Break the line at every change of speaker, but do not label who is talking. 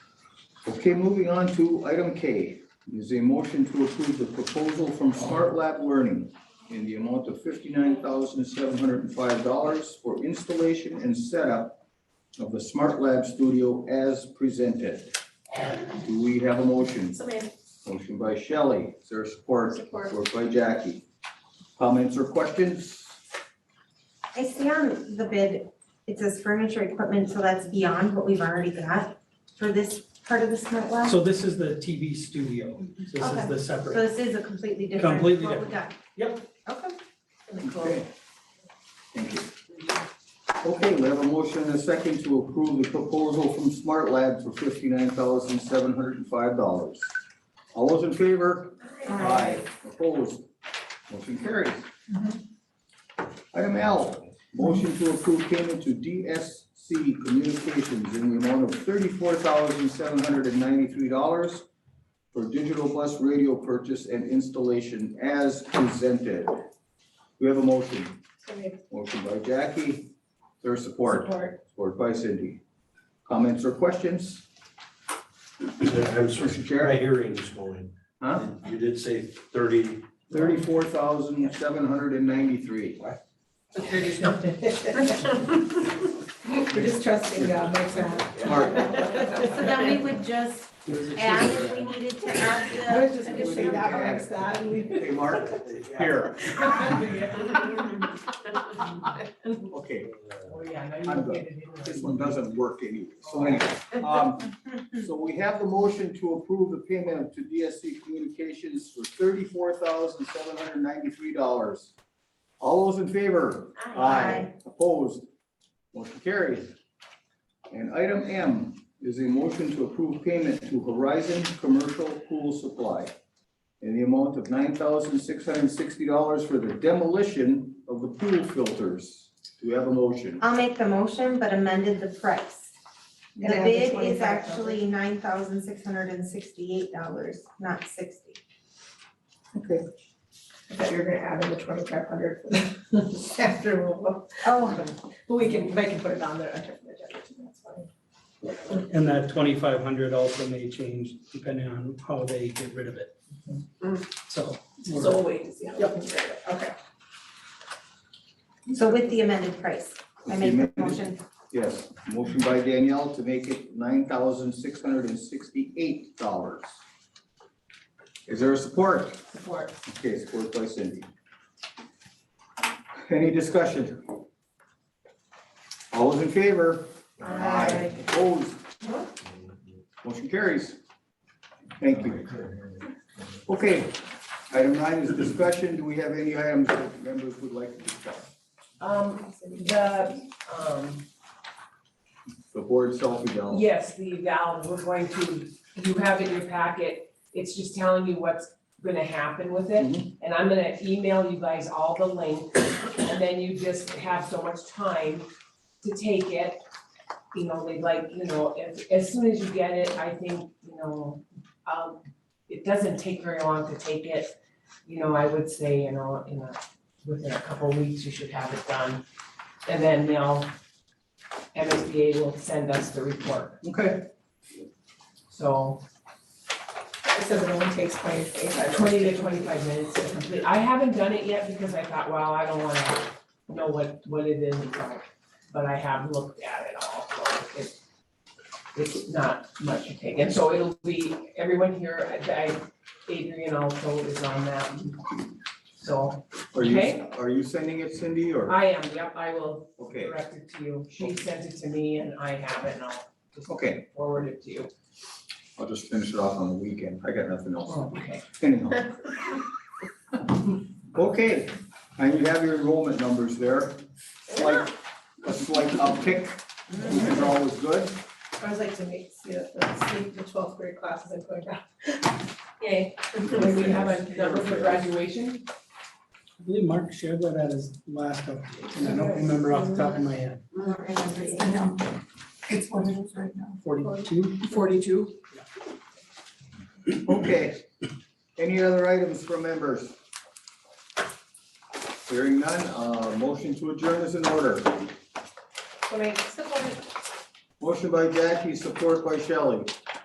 Okay, moving on to item K, is a motion to approve the proposal from Smart Lab Learning in the amount of fifty-nine thousand seven hundred and five dollars for installation and setup of the Smart Lab Studio as presented. Do we have a motion?
So maybe
Motion by Shelley, is there support?
Support.
Support by Jackie. Comments or questions?
I see on the bid, it says furniture equipment, so that's beyond what we've already got for this part of the smart lab. So
So this is the TV studio. So This
Okay.
is the separate.
this is a completely different, what we
Completely
got.
Yep.
Okay.
Okay. Thank you. Okay, we have a motion and a second to approve the proposal from Smart Lab for fifty-nine thousand seven hundred and five dollars. All those in favor? Opposed? Motion carries. Mm-hmm. Item L, motion to approve payment to DSC Communications in the amount of thirty-four thousand seven hundred and ninety-three dollars for digital bus radio purchase and installation as presented. We have a motion.
so maybe
Motion by Jackie, there's support,
support.
support by Cindy. Comments or questions?
I was
Mr.
my
Chair?
hearing this morning.
Huh?
You did say thirty.
Thirty-four thousand, seven hundred and ninety-three.
We're just trusting God, makes sense.
Smart.
So then we would just add if we needed to
I
add
was just gonna say that makes sense.
Hey, Mark, here, okay, I'm good. This one doesn't work anyway, so anyway. um, So we have the motion to approve the payment to DSC Communications for thirty-four thousand, seven hundred and ninety-three dollars. All those in favor?
the.
Opposed? Motion carries. And item M is a motion to approve payment to Horizon Commercial Pool Supply in the amount of nine thousand six hundred and sixty dollars for the demolition of the pool filters. Do we have a motion?
I'll make the motion, but amended the price. The
And add the
bid is
25,000.
actually nine thousand six hundred and sixty-eight dollars, not sixty.
Okay. I thought you were gonna add in the twenty-five hundred after, we'll-
Oh,
but we can, they can put it on there under the agenda, too, that's fine.
And that twenty-five hundred also may change depending on how they get rid of it. So. we're-
So we'll wait to see how. Yep. Okay.
so with the amended price, I make the motion.
Yes, motion by Danielle to make it nine thousand six hundred and sixty-eight dollars. Is there a support?
Support.
Okay, support by Cindy. Any discussion? All those in favor?
Aye.
Opposed? Motion carries. Thank you. Okay, item nine is discussion. Do we have any items that members would like to discuss?
Um, the, um,
The board self-eval.
yes, the valve, we're going to, you have in your packet, it's just telling you what's gonna happen with it.
Mhm.
And I'm gonna email you guys all the link, and then you just have so much time to take it. You know, they like, you know, as, as soon as you get it, I think, you know, um, it doesn't take very long to take it. You know, I would say, you know, in a, within a couple of weeks, you should have it done. And then they'll, MSBA will send us the report,
Okay,
so
It says it only takes twenty to twenty-five.
twenty to twenty-five minutes to complete. I haven't done it yet because I thought, wow, I don't wanna know what, what it is about. But I have looked at it all, so it, it's not much to take. And so it'll be, everyone here, I, I- Adrian also is on that. So
are you,
Okay. Uh,
are you sending it Cindy or?
I am, yep, I will
Okay,
direct it to you. She sent it to me and I have it and I'll just
okay,
forward it to you.
I'll just finish it off on the weekend. I got nothing else.
Okay.
Anyhow. Okay, and you have your enrollment numbers there. Slight, a slight uptick, which is always good.
I was like to make, see, the, see the twelfth grade classes I'm going back. Yay.
Do we have a number for graduation?
I believe Mark shared that at his last update, and I don't remember off the top of my head,
It's what it is right now.
forty-two?
Forty-two.
Okay. Any other items from members? Hearing none, uh, motion to adjourn is in order.
So make, support.
Motion by Jackie, support by Shelley.